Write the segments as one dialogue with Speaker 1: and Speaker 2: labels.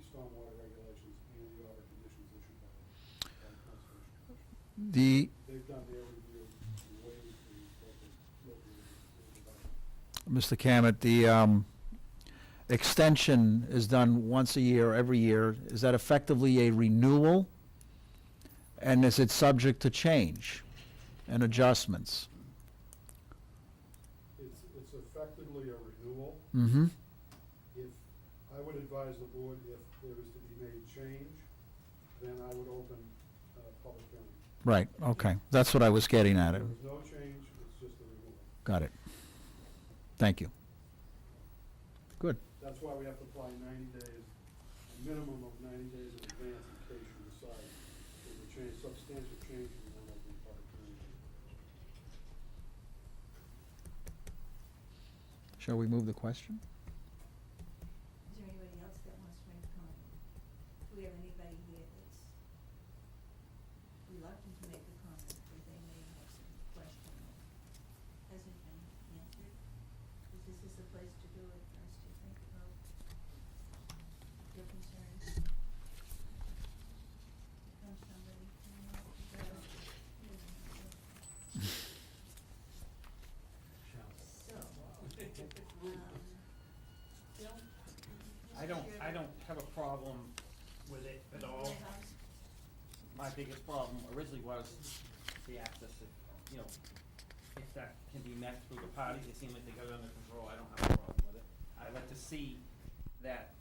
Speaker 1: stormwater regulations and the order conditions issued by the by the Conservation Commission.
Speaker 2: The,
Speaker 1: They've done their review way before you go to local development.
Speaker 2: Mr. Cammett, the um, extension is done once a year, every year. Is that effectively a renewal? And is it subject to change and adjustments?
Speaker 1: It's, it's effectively a renewal.
Speaker 2: Mm-hmm.
Speaker 1: If, I would advise the board, if there is to be made change, then I would open a public hearing.
Speaker 2: Right, okay. That's what I was getting at.
Speaker 1: There was no change, it's just a renewal.
Speaker 2: Got it. Thank you. Good.
Speaker 1: That's why we have to apply ninety days, a minimum of ninety days in advance in case you decide there's a change, substantial change in one of the public hearing.
Speaker 2: Shall we move the question?
Speaker 3: Is there anybody else that wants to make a comment? Do we have anybody here that's reluctant to make a comment, or they may have some question that hasn't been answered? Because this is the place to do it, for us to think about your concerns. Comes somebody, you know, well, you know, So, um, don't.
Speaker 4: I don't, I don't have a problem with it at all. My biggest problem originally was the access, to, you know, if that can be met through the parties, it seemed like they got it under control, I don't have a problem with it. I'd like to see that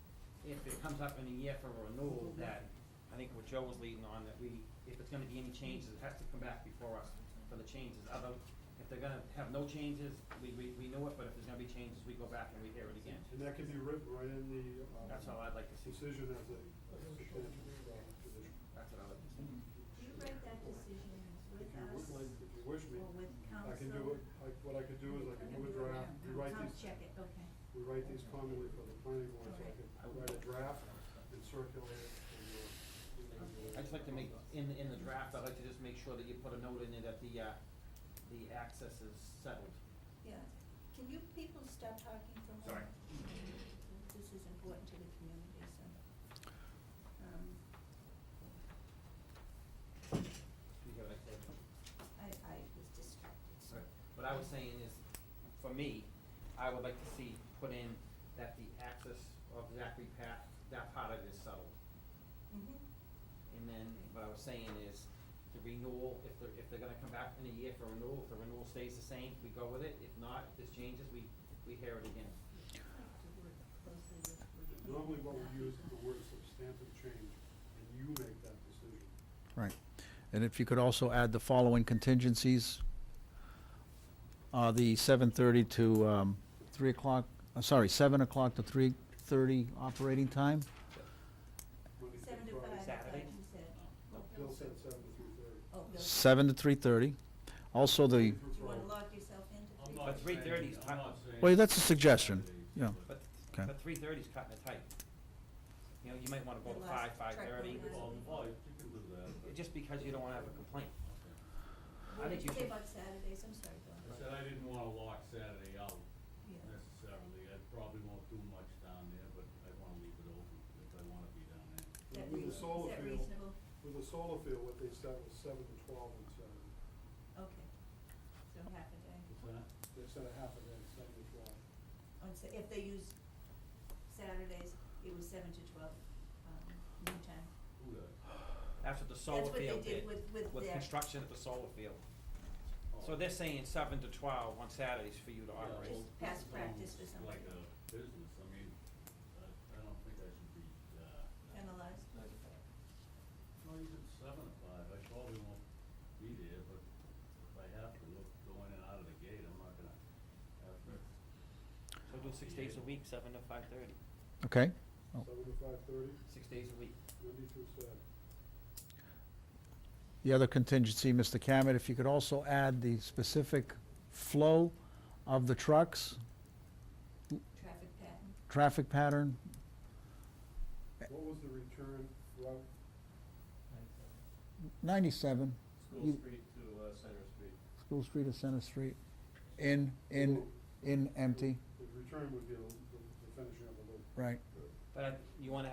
Speaker 4: if it comes up in a year for renewal, that, I think what Joe was leading on, that we, if it's gonna be any changes, it has to come back before us for the changes. Although, if they're gonna have no changes, we, we, we know it, but if there's gonna be changes, we go back and we hear it again.
Speaker 1: And that can be written right in the, um,
Speaker 4: That's all I'd like to see.
Speaker 1: decision as a, as a substantial, uh, position.
Speaker 4: That's what I would say.
Speaker 3: You write that decision
Speaker 1: If
Speaker 3: with
Speaker 1: you
Speaker 3: us
Speaker 1: would, like, if you wish me,
Speaker 3: or with council?
Speaker 1: I can do it, like, what I could do is I can do a draft, we write
Speaker 3: I'll
Speaker 1: these,
Speaker 3: check it, okay.
Speaker 1: we write these commonly for the planning board, so I
Speaker 3: Okay.
Speaker 1: could write a draft and circulate it for your.
Speaker 4: I'd just like to make, in, in the draft, I'd like to just make sure that you put a note in there that the, uh, the access is settled.
Speaker 3: Yeah. Can you people stop talking for a moment?
Speaker 4: Sorry.
Speaker 3: This is important to the community, so. Um,
Speaker 4: Do you hear what I said?
Speaker 3: I, I was distracted, so.
Speaker 4: What I was saying is, for me, I would like to see put in that the access of Zachary Path, that part of it is settled.
Speaker 3: Mhm.
Speaker 4: And then what I was saying is, the renewal, if they're, if they're gonna come back in a year for renewal, if the renewal stays the same, we go with it. If not, if this changes, we, we hear it again.
Speaker 3: I have to work closely with- with you.
Speaker 1: Normally what we use is the word substantive change, and you make that decision.
Speaker 2: Right. And if you could also add the following contingencies. Uh, the seven thirty to, um, three o'clock, uh, sorry, seven o'clock to three thirty operating time?
Speaker 1: Monday through
Speaker 3: Seven
Speaker 1: Friday.
Speaker 3: to five, is that
Speaker 4: Saturday?
Speaker 3: what you said?
Speaker 4: No.
Speaker 1: Bill said seven to three thirty.
Speaker 3: Oh, Bill, do
Speaker 2: Seven to three thirty. Also the,
Speaker 3: you wanna lock yourself into three?
Speaker 5: I'm
Speaker 4: But
Speaker 5: not
Speaker 4: three
Speaker 5: saying-
Speaker 4: thirty is
Speaker 5: I'm
Speaker 4: ti-
Speaker 5: not saying
Speaker 2: well, that's a suggestion, you know.
Speaker 4: But,
Speaker 2: Okay.
Speaker 4: but three thirty's cutting it tight. You know, you might wanna go to
Speaker 3: The
Speaker 4: five,
Speaker 3: last
Speaker 4: five
Speaker 3: track
Speaker 4: thirty,
Speaker 3: one.
Speaker 5: Well, well, you can do that, but-
Speaker 4: just because you don't wanna have a complaint. I
Speaker 3: What
Speaker 4: think
Speaker 3: did you
Speaker 4: you
Speaker 3: say
Speaker 4: should-
Speaker 3: about Saturdays? I'm sorry, Bill.
Speaker 5: I said I didn't wanna lock Saturday out
Speaker 3: Yeah.
Speaker 5: necessarily, I probably won't do much down there, but I wanna leave it open if I wanna be down there.
Speaker 3: Is that
Speaker 1: With
Speaker 3: rea-
Speaker 1: the solar
Speaker 3: Is that
Speaker 1: field.
Speaker 3: reasonable?
Speaker 1: With the solar field, what they set was seven to twelve and seven.
Speaker 3: Okay. So half a day.
Speaker 5: What's that?
Speaker 1: They set a half a day, seven to twelve.
Speaker 3: on, Sa- if they used Saturdays, it was seven to twelve, um, noon time.
Speaker 5: Who does?
Speaker 4: That's what the solar
Speaker 3: what they
Speaker 4: field
Speaker 3: did
Speaker 4: did,
Speaker 3: with- with
Speaker 4: with
Speaker 3: their-
Speaker 4: construction at the solar field.
Speaker 5: Oh.
Speaker 4: So they're saying seven to twelve on Saturdays for you to
Speaker 5: Yeah,
Speaker 4: operate.
Speaker 5: well,
Speaker 3: Just past
Speaker 5: it's
Speaker 3: practice
Speaker 5: almost
Speaker 3: or something.
Speaker 5: Like a business, I mean, I, I don't think I should be, uh.
Speaker 3: Penalized?
Speaker 5: No, you did seven to five, I probably won't be there, but if I have to, look, go in and out of the gate, I'm not gonna have to
Speaker 4: So do six days a week, seven to five thirty.
Speaker 2: Okay, Oh.
Speaker 1: Seven to five thirty,
Speaker 4: Six days a week.
Speaker 1: Monday through Saturday.
Speaker 2: the other contingency, Mr. Cammett, if you could also add the specific flow of the trucks,
Speaker 3: Traffic pattern?
Speaker 2: traffic pattern,
Speaker 1: What was the return route?
Speaker 2: ninety-seven.
Speaker 6: School
Speaker 2: You-
Speaker 6: Street to uh, Center Street.
Speaker 2: School Street or Center Street, in, in, in empty,
Speaker 1: The return would be the the finishing of the loop.
Speaker 2: right.
Speaker 4: But I- you wanna have